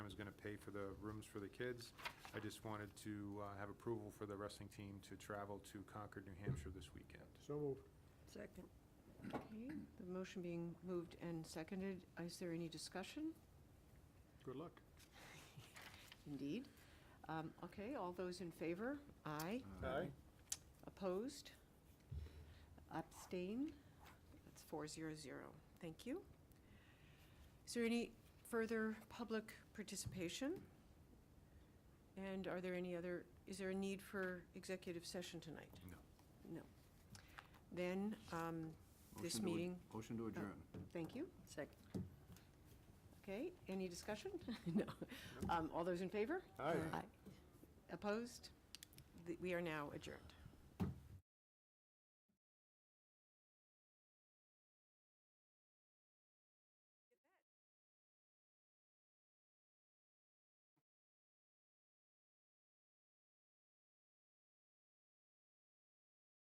pay for the rooms for the kids. I just wanted to uh, have approval for the wrestling team to travel to Concord, New Hampshire this weekend. So moved. Second. Okay, the motion being moved and seconded, is there any discussion? Good luck. Indeed. Um, Okay, all those in favor? Aye. Aye. Opposed? Abstain? That's four zero zero. Thank you. Is there any further public participation? And are there any other, is there a need for executive session tonight? No. No. Then, um, Motion this to ad- meeting. Motion to Oh, adjourn. Thank you. Second. Okay, any discussion? No. Um, All those in favor? Aye. Opposed? The- We are now adjourned.